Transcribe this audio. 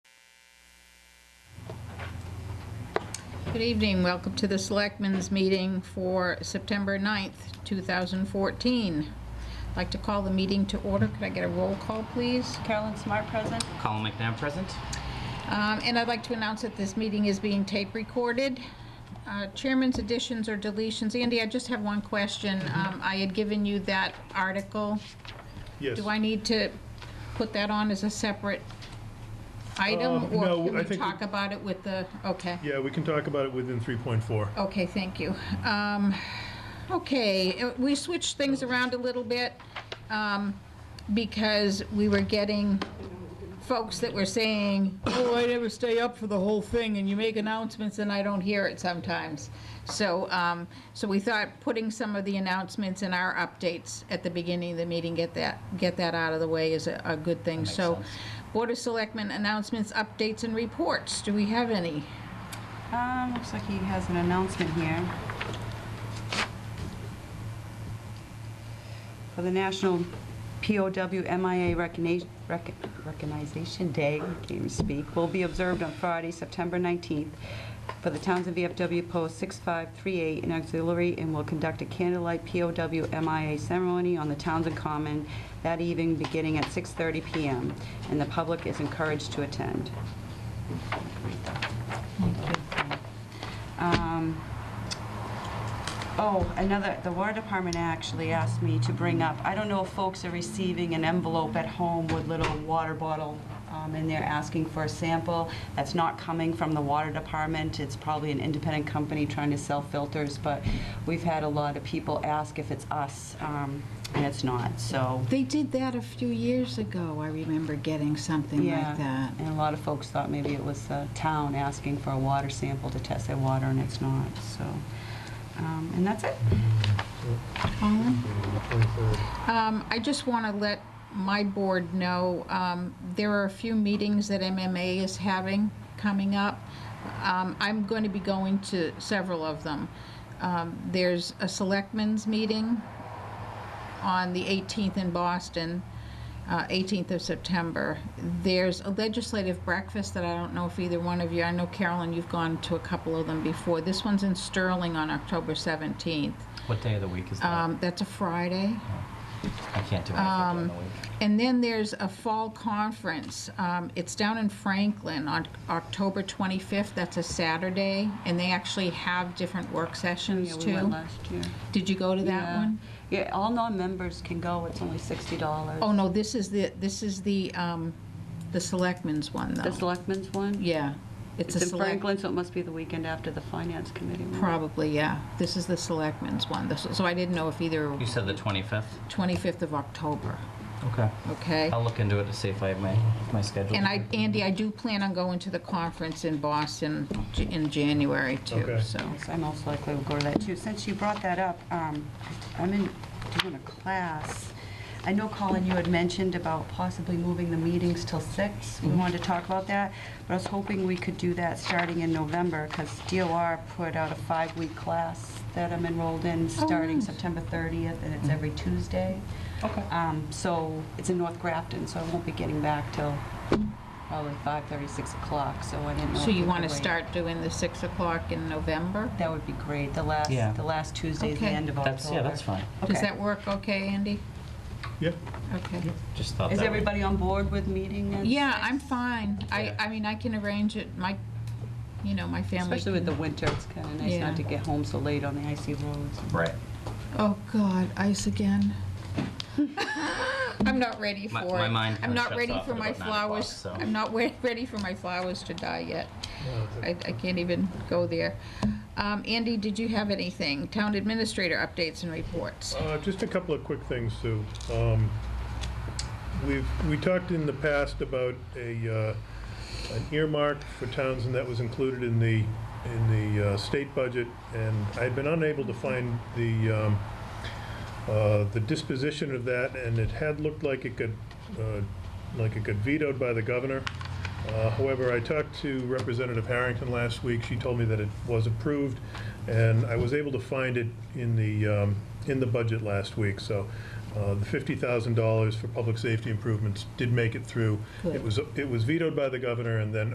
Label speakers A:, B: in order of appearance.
A: Good evening, welcome to the Selectmen's Meeting for September 9th, 2014. I'd like to call the meeting to order, could I get a roll call, please?
B: Carolyn Smart present.
C: Colin McNabb present.
A: Um, And I'd like to announce that this meeting is being tape recorded. Uh, Chairman's additions or deletions, Andy, I just have one question. Um, I had given you that article.
D: Yes.
A: Do I need to put that on as a separate item?
D: Um, no,
A: Or
D: I
A: can we
D: think
A: talk
D: we-
A: about it with the, okay.
D: Yeah, we can talk about it within 3.4.
A: Okay, thank you. Um, Okay, uh, we switched things around a little bit um, because we were getting folks that were saying, oh, I never stay up for the whole thing, and you make announcements and I don't hear it sometimes. So, um, so we thought putting some of the announcements and our updates at the beginning of the meeting, get that, get that out of the way is a, a good thing. So,
C: sense.
A: Board of Selectmen announcements, updates, and reports, do we have any?
B: Um, looks like he has an announcement here. For the National POW MIA Recogni- Rec- Recognition Day, can't even speak, will be observed on Friday, September 19th, for the Townsend VFW Post 6538 in auxiliary, and will conduct a candlelight POW MIA ceremony on the Townsend Common that evening, beginning at 6:30 PM, and the public is encouraged to attend. Um, Oh, another, the water department actually asked me to bring up, I don't know if folks are receiving an envelope at home with little water bottle um, in there asking for a sample. That's not coming from the water department. It's probably an independent company trying to sell filters, but we've had a lot of people ask if it's us, um, and it's not, so.
A: They did that a few years ago. I remember getting something
B: yeah.
A: like that.
B: And a lot of folks thought maybe it was the town asking for a water sample to test their water, and it's not, so. um, And that's it.
A: Colin? Um, I just want to let my board know, um, there are a few meetings that MMA is having coming up. Um, I'm going to be going to several of them. Um, there's a selectmen's meeting on the 18th in Boston, uh, 18th of September. There's a legislative breakfast that I don't know if either one of you, I know Carolyn, you've gone to a couple of them before. This one's in Sterling on October 17th.
C: What day of the week is that?
A: Um, That's a Friday.
C: I can't do anything during the week.
A: And then there's a fall conference. Um, It's down in Franklin on October 25th. That's a Saturday. And they actually have different work sessions
B: Yeah, we went
A: too.
B: last year.
A: Did you go to that
B: Yeah.
A: one?
B: Yeah, all non-members can go, it's only sixty dollars.
A: Oh, no, this is the, this is the, um, the selectmen's one
B: The
A: though.
B: selectmen's one?
A: Yeah. It's a
B: It's in
A: select,
B: Franklin, so it must be the weekend after the finance committee. one.
A: probably, yeah. This is the selectmen's one. This- So I didn't know if either
C: You said the 25th?
A: 25th of October,
C: Okay.
A: okay?
C: I'll look into it to see if I have my, my schedule.
A: And I, Andy, I do plan on going to the conference in Boston j- in January too,
D: Okay.
A: so.
B: Yes, I most likely will go to that too. Since you brought that up, um, I'm in, doing a class. I know, Colin, you had mentioned about possibly moving the meetings till six. We
A: Mm-hmm.
B: wanted to talk about that, but I was hoping we could do that starting in November because DOR put out a five-week class that I'm enrolled in, starting
A: Oh, nice. Mm-hmm.
B: September 30th, and it's every Tuesday.
C: Okay.
B: Um, So it's in North Grafton, so I won't be getting back till probably 5:30, 6 o'clock, so I didn't
A: Mm-hmm.
B: know.
A: So
B: if
A: you
B: we
A: want to
B: could wait.
A: start doing the 6 o'clock in November?
B: That would be great. The last,
C: Yeah.
B: the last Tuesday is the
A: Okay.
B: end of October.
C: That's, yeah, that's fine.
A: Does
B: Okay.
A: that work okay, Andy?
D: Yep.
A: Okay.
C: Just thought that.
B: Is
C: would-
B: everybody on board with meeting? at
A: Yeah,
B: six?
A: I'm fine. I,
C: Yeah.
A: I mean, I can arrange it, my, you know, my family.
B: Especially with the
A: can-
B: winter, it's kind of nice
A: Yeah.
B: not to get home so late on the icy roads.
C: Right.
A: Oh, God, ice again. I'm not ready for
C: My-
A: it.
C: my mind
A: I'm
C: kinda
A: not
C: shuts
A: ready
C: off
A: for
C: at
A: my
C: about nine o'clock,
A: flowers.
C: so.
A: I'm not we- ready for my flowers to die yet. I, I can't even go there. Um, Andy, did you have anything? Town administrator updates and reports.
D: Uh, Just a couple of quick things, Sue. Um, We've, we talked in the past about a, uh, an earmark for Townsend that was included in the, in the uh, state budget, and I've been unable to find the, um, uh, the disposition of that, and it had looked like it could, uh, like it could vetoed by the governor. Uh, However, I talked to Representative Harrington last week. She told me that it was approved, and I was able to find it in the, um, in the budget last week. So uh, the $50,000 for public safety improvements did make it through.
A: Good.
D: It was, it was vetoed by the governor, and then